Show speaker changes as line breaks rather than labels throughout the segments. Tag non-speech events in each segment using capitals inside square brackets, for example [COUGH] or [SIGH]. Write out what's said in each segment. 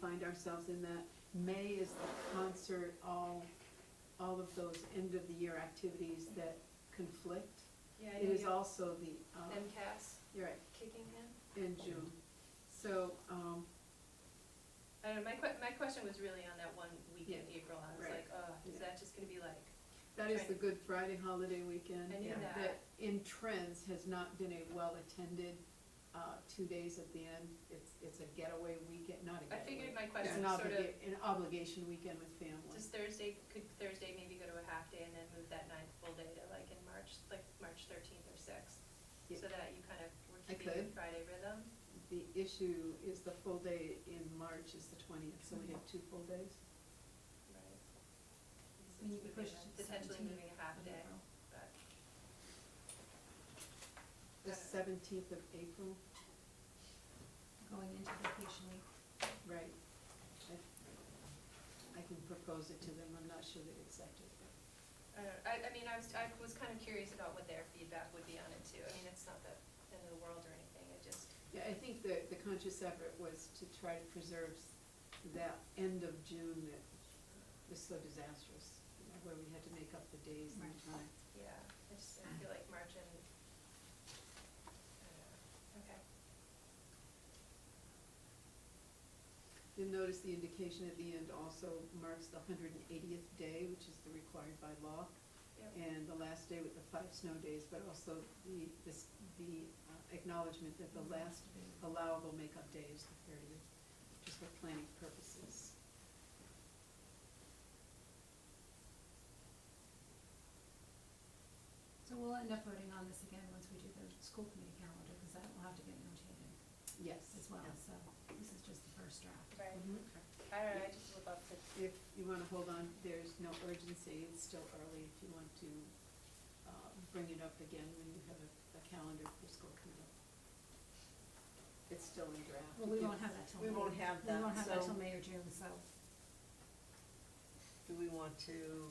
find ourselves in that. May is the concert, all, all of those end-of-the-year activities that conflict.
Yeah, I
It
know
is
you have
also the, uh,
MCAS
you're right,
kicking in.
in June. So, um,
I don't know, my que- my question was really on that one week in
Yeah.
April, I was
Right.
like, oh, is
Yeah.
that just gonna be like,
that is the Good Friday holiday weekend.
I knew
Yeah.
that,
in trends has not been a well-attended, uh, two days at the end. It's, it's a getaway weekend, not a
I
getaway.
figured my
It's
question
an
was sort of,
obliga- an obligation weekend with family.
does Thursday, could Thursday maybe go to a half day and then move that ninth full day to like in March, like March thirteenth or sixth?
Yeah.
So that you kind of were
I
keeping the
could.
Friday rhythm?
The issue is the full day in March is the twentieth, so we have two full days.
Right. So
When you
it's moving
push
a-
to
Potentially
17th
moving a half day, but,
The
Yeah.
seventeenth of April,
Going into vacation week.
right. I- I can propose it to them, I'm not sure they'd accept it.
I don't, I, I mean, I was, I was kind of curious about what their feedback would be on it too. I mean, it's not the end of the world or anything, it just,
Yeah, I think the, the conscious effort was to try to preserve s- that end of June that was so disastrous, you know, where we had to make up the days and the time.
yeah, I just, I feel like March and, I don't know. okay.
You'll notice the indication at the end also marks the hundred and eightieth day, which is the required by law.
Yep.
And the last day with the five snow days, but also the, this, the uh, acknowledgement that the last allowable makeup day is the thirtieth, just for planning purposes.
So we'll end up voting on this again once we do the school committee calendar, because that will have to get notated
Yes.
as well, so this is just the first draft.
Right,
Mhm.
I don't know, I just would love to,
If you wanna hold on, there's no urgency, it's still early, if you want to, uh, bring it up again when you have a, a calendar for school committee. It's still in draft.
Well, we
You-
won't have that till
We
May.
won't have
We won't
that,
have that till
so
May or June, so
do we want to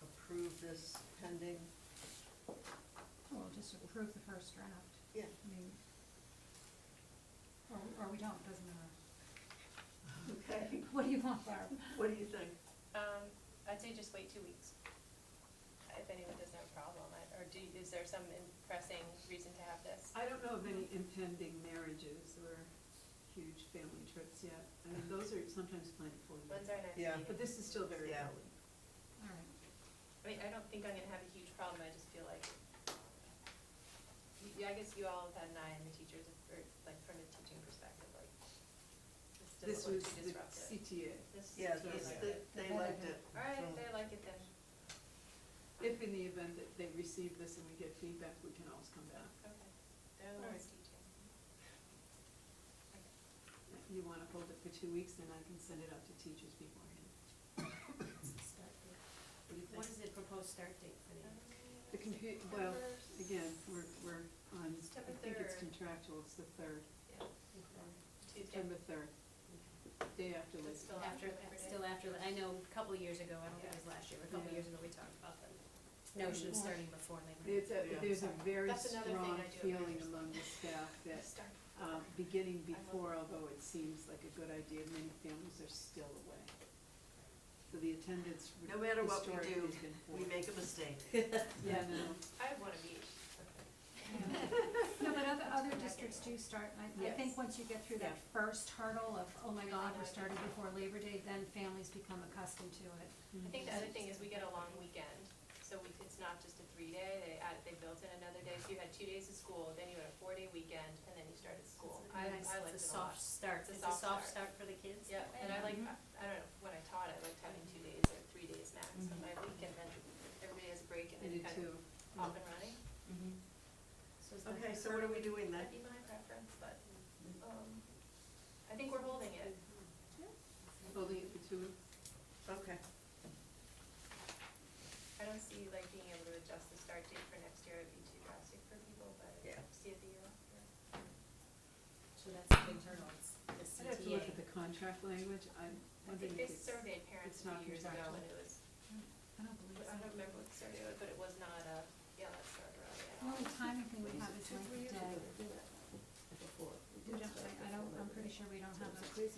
approve this pending?
we'll just approve the first draft.
Yeah.
I mean, or, or we don't, doesn't matter. [LAUGHS]
Okay.
What do you want, Barb?
What do you think?
um, I'd say just wait two weeks. If anyone doesn't have a problem, I- or do, is there some pressing reason to have this?
I don't know of any impending marriages or huge family trips yet, I mean, those are sometimes planned for you,
When's our next
Yeah.
meeting?
but this is still very
Yeah.
early.
All right,
I mean, I don't think I'm gonna have a huge problem, I just feel like, yeah, I guess you all have had an eye on the teachers, or like from a teaching perspective, like, this
This
doesn't
was
look too
the
disruptive.
CTA,
This is
Yeah,
too
this-
like
they,
disruptive.
they liked it.
All right,
so-
they like it then,
if in the event that they receive this and we get feedback, we can always come back.
okay, they're the
All
ones teaching.
You wanna hold it for two weeks, then I can send it out to teachers beforehand. What do you
What
think?
is the proposed start date for the?
The compu, well, again, we're, we're on, I
September
think it's
third.
contractual, it's the third,
Tuesday,
September third, day after Labor.
It's still after
After,
Labor Day.
still after, I know a couple of years ago, I don't think it was last year, but a couple
Yeah.
of years ago, we talked about the notion of
Yeah.
starting before Labor Day.
There's a,
Yeah.
there's a very
That's another thing
strong
I do agree
feeling
with.
among the staff that,
Start.
uh, beginning
I love
before, although it seems like a good idea, many families are still away. So the attendance re-
No matter what we
historically
do,
has been poor.
We make a [LAUGHS] mistake.
Yeah, no, no.
I have one of each.
No, but other, other districts do start, and I, I think
Yes.
once you get through that first hurdle of, oh my God, we're starting before Labor Day, then families become accustomed to it.
Mm-hmm.
I think the other thing is we get a long weekend, so we, it's not just a three-day, they add, they built in another day, so you had two days of school, then you had a four-day weekend, and then you started school. I,
Nice,
I liked it
It's a
a lot.
soft start,
It's a
it's a
soft
soft
start.
start for the kids.
Yeah, and I like, I I don't know, when I taught, I liked having two days or three days max on my week, and then everybody has a break, and
I
then
do
you kind
too.
of off and running.
So is
Mm-hmm.
the
Okay, so what are we doing then?
That'd be my preference, but, um, I think we're holding it.
Holding it for two weeks.
Okay,
I don't see like being able to adjust the start date for next year, it'd be too drastic for people, but
Yeah.
see if the year after.
So that's the big hurdle, it's the
I'd have to look at
CTA.
the contract language, I'm
I
wondering if
think they
it's,
surveyed parents
it's
a
not
few years ago,
contractual.
and it was,
I don't believe
I
so.
don't remember what the survey was, but it was not a, yeah, let's start early at
The
all.
only timing thing we have is like the day. We don't, I, I don't, I'm pretty sure we don't have a